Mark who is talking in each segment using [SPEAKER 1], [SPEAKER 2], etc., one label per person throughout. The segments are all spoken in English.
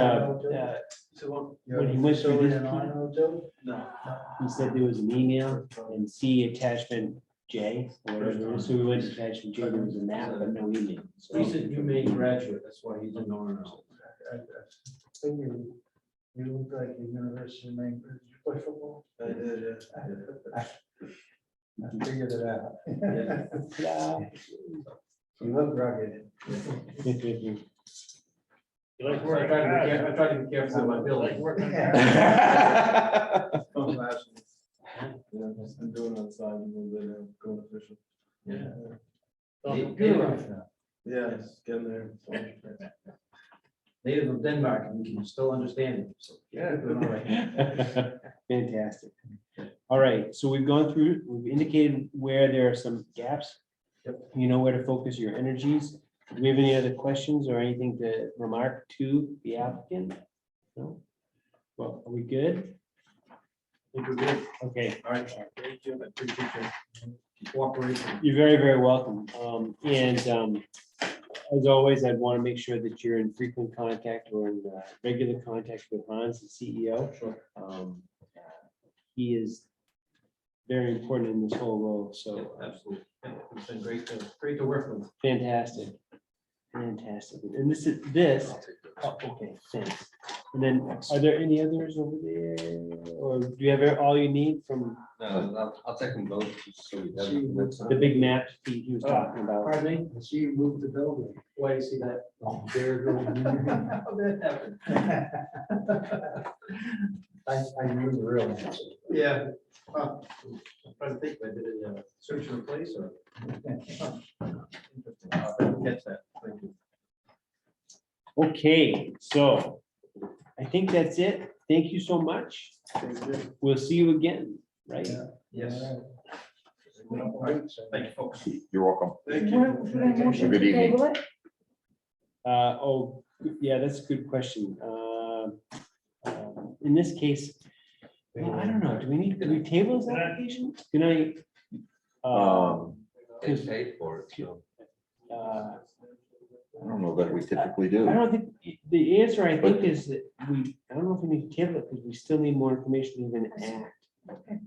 [SPEAKER 1] uh, uh,
[SPEAKER 2] So
[SPEAKER 1] when he went through this,
[SPEAKER 2] No.
[SPEAKER 1] uh, he said there was an email
[SPEAKER 2] um,
[SPEAKER 1] and see attachment J, or whatever, so we went to attachment J, there was a map, but no email. so-
[SPEAKER 2] He's a new Maine graduate, that's why he's in RNL.
[SPEAKER 3] You look like the University of Maine, did you play football?
[SPEAKER 2] I did, yeah.
[SPEAKER 3] I figured it out.
[SPEAKER 2] Yeah.
[SPEAKER 1] Ta-da.
[SPEAKER 3] You look rugged.
[SPEAKER 4] You like
[SPEAKER 2] I
[SPEAKER 4] wearing
[SPEAKER 2] tried to
[SPEAKER 4] hats.
[SPEAKER 2] be care- I tried to be careful with my
[SPEAKER 4] You like
[SPEAKER 2] billing.
[SPEAKER 4] working
[SPEAKER 5] Yeah, I've been doing it outside and then uh, going fishing.
[SPEAKER 2] Yeah.
[SPEAKER 4] on the
[SPEAKER 2] Native-
[SPEAKER 4] computer.
[SPEAKER 2] Native-
[SPEAKER 5] Yeah, it's getting there. It's all-
[SPEAKER 2] Native of Denmark, and we can still understand him, so.
[SPEAKER 5] Yeah.
[SPEAKER 2] Doing all right.
[SPEAKER 1] Fantastic. All right, so we've gone through, we've indicated where there are some gaps. You know where to focus your energies. Do we have any other questions or anything to remark to the applicant? No? Well, are we good?
[SPEAKER 2] Think we're good.
[SPEAKER 1] Okay,
[SPEAKER 2] All right, thank you, I appreciate your cooperation.
[SPEAKER 1] you're very, very welcome. Um, and, um, as always, I'd want to make sure that you're in frequent contact or in uh, regular contact with Hans, the CEO.
[SPEAKER 2] Sure.
[SPEAKER 1] Um, He is very important in this whole role, so uh,
[SPEAKER 2] Absolutely, Yeah, it's been great to, great to work with.
[SPEAKER 1] fantastic. Fantastic. And this is, this, oh, okay, thanks. And then, are there any others over there? Or do you have all you need from
[SPEAKER 6] No, I'll, I'll take them both. just so we have
[SPEAKER 3] She
[SPEAKER 6] them.
[SPEAKER 3] moved,
[SPEAKER 6] That's-
[SPEAKER 1] the big map he he was talking about?
[SPEAKER 3] pardon me, she moved the building.
[SPEAKER 2] Why you see that? There it goes. How that happened?
[SPEAKER 3] I, I knew the real answer.
[SPEAKER 2] Yeah. Huh. I'm trying to think, if I did a uh, search and replace or? Interesting. I'll Catch that, thank you.
[SPEAKER 1] Okay, so I think that's it. Thank you so much. We'll see you again, right?
[SPEAKER 2] Yes.
[SPEAKER 3] All right, so-
[SPEAKER 2] Thank you, folks.
[SPEAKER 7] You're welcome.
[SPEAKER 5] Thank you.
[SPEAKER 8] What- Should I motion
[SPEAKER 7] Good
[SPEAKER 8] to
[SPEAKER 7] evening.
[SPEAKER 8] table it?
[SPEAKER 1] Uh, oh, yeah, that's a good question. Um, um, in this case, well, I don't know, do we need, do we table this application? Can I? uh,
[SPEAKER 7] Um,
[SPEAKER 6] They paid for it, so.
[SPEAKER 1] uh,
[SPEAKER 7] I don't know that we typically
[SPEAKER 1] I
[SPEAKER 7] do.
[SPEAKER 1] don't think, the answer I think is that we, I don't know if we need to table it, because we still need more information to even act.
[SPEAKER 8] Okay.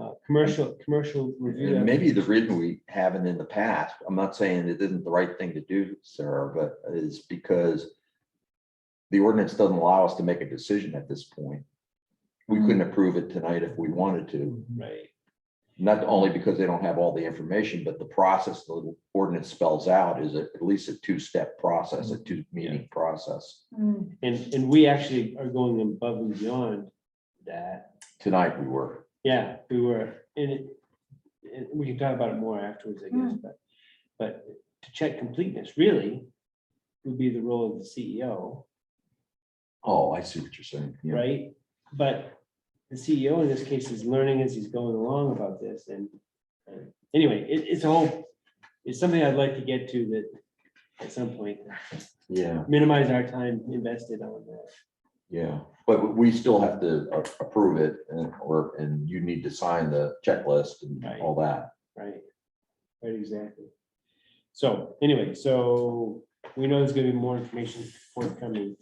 [SPEAKER 1] Uh, commercial, commercial review.
[SPEAKER 7] And maybe the reason we haven't in the past, I'm not saying it isn't the right thing to do, Sarah, but is because the ordinance doesn't allow us to make a decision at this point. We
[SPEAKER 1] Mm.
[SPEAKER 7] couldn't approve it tonight if we wanted to,
[SPEAKER 1] Right,
[SPEAKER 7] not only because they don't have all the information, but the process the ordinance spells out is at least a two-step process,
[SPEAKER 1] Mm.
[SPEAKER 7] a two-meeting process.
[SPEAKER 8] Hmm,
[SPEAKER 1] and, and we actually are going above and beyond that.
[SPEAKER 7] Tonight we were.
[SPEAKER 1] Yeah, we were, and it, and we can talk about it more afterwards, I guess, but, but to check completeness, really, would be the role of the E CEO,
[SPEAKER 7] Oh, I see what you're saying. Yeah.
[SPEAKER 1] right? But the CEO in this case is learning as he's going along about this, and, uh, anyway, it, it's a whole, it's something I'd like to get to that at some point,
[SPEAKER 7] Yeah,
[SPEAKER 1] minimize our time invested on that.
[SPEAKER 7] yeah. But we still have to a- approve it and, or, and you need to sign the checklist and
[SPEAKER 1] Right.
[SPEAKER 7] all that.
[SPEAKER 1] Right. Right, exactly. So anyway, so we know there's gonna be more information forthcoming.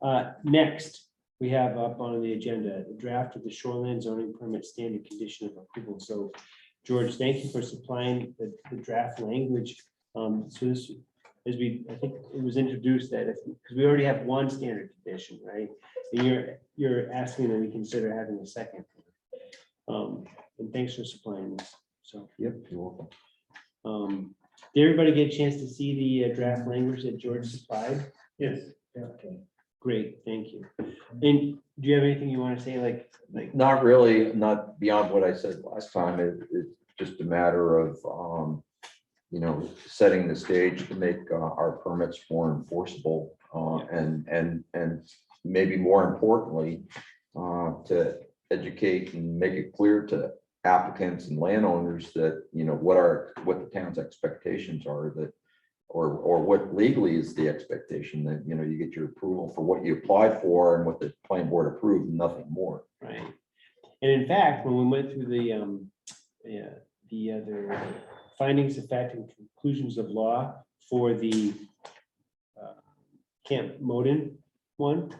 [SPEAKER 1] Uh, next, we have up on the agenda, the draft of the shoreline zoning permit standard condition of approval. So George, thank you for supplying the, the draft language. Um, so this, as we, I think it was introduced that if, because we already have one standard condition, right? And you're, you're asking that we consider having a second. Um, and thanks for supplying this, so.
[SPEAKER 7] Yep. you're welcome.
[SPEAKER 1] Um, did everybody get a chance to see the uh, draft language that George supplied?
[SPEAKER 3] Yes. Okay.
[SPEAKER 1] Great, thank you. And do you have anything you want to say, like, like,
[SPEAKER 7] Not really, not beyond what I said last time. It, it's just a matter of, um, you know, setting the stage to make uh, our permits more enforceable, uh, and, and, and maybe more importantly, uh, to educate and make it clear to applicants and landowners that, you know, what are, what the town's expectations are that, or, or what legally is the expectation that, you know, you get your approval for what you applied for and what the planning board approved, nothing more.
[SPEAKER 1] right? And in fact, when we went through the, um, yeah, the other findings of fact and conclusions of law for the uh, Camp Moden, one.